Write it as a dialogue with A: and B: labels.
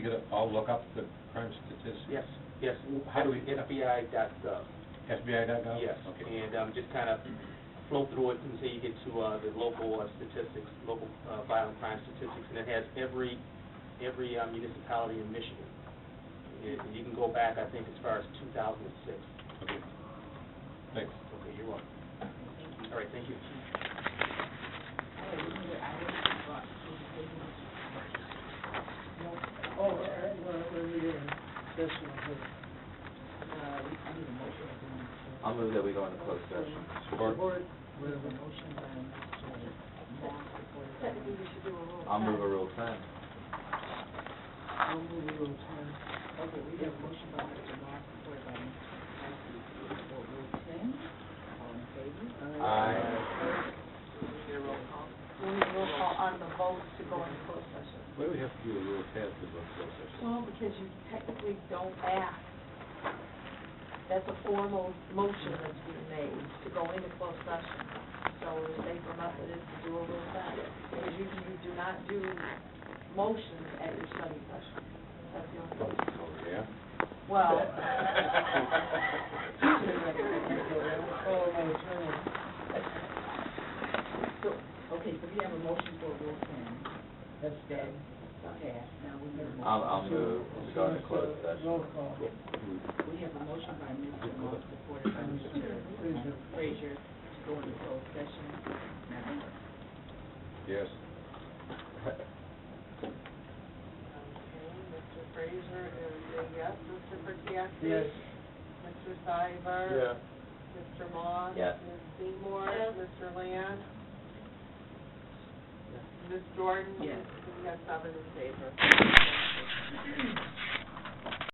A: get it, I'll look up the crime statistics.
B: Yes, yes.
A: How do we-
B: FBI E dot gov,
A: FBI.gov?
B: yes.
A: Oh, Okay.
B: And um, just kind of flow through it until you get to uh, the local uh, statistics, local uh, violent crime statistics, and it has every, every um, municipality in Michigan. And You can go back, I think, as far as 2006.
A: Okay. Thanks.
B: Okay, you're welcome. All right, thank you.
C: Oh, all right, well, we're reading this one here.
D: I'll move that we go into closed session.
C: Support. We have a motion by Mr. Moss, supported by
D: I'll move a rule ten.
C: I'll move it on ten. Okay, we have a motion by Mr. Moss, supported by Mr. Paskey, for Rule ten. All in favor?
D: Aye.
E: roll call on the vote to go into closed session.
A: Why do we have to do a rule ten to go to closed session?
E: Well, because you technically don't act. That's a formal motion that's being made to go into closed session. So the safer method is to do a rule set, because you, you do not do motions at your study session. That's the only thing.
A: Oh, yeah?
E: Well.
C: Oh, my turn. So, okay, so we have a motion for Rule ten. That's dead. Okay, now we have a motion.
A: Uh,
D: I'll- I'll move to go into closed session.
C: Roll call. We have a motion by Mr. Moss, supported by Mr. Frazier, to go into closed session. Madam Clerk.
A: Yes.
E: Mr. Fraser is a yes, Mr. Perkiasis?
C: Yes.
E: Mr. Seibert? Mr. Moss?
D: Yes.
E: Ms. Seymour? Mr. Land? Ms. Jordan?
C: Yes.
E: We have seven in favor.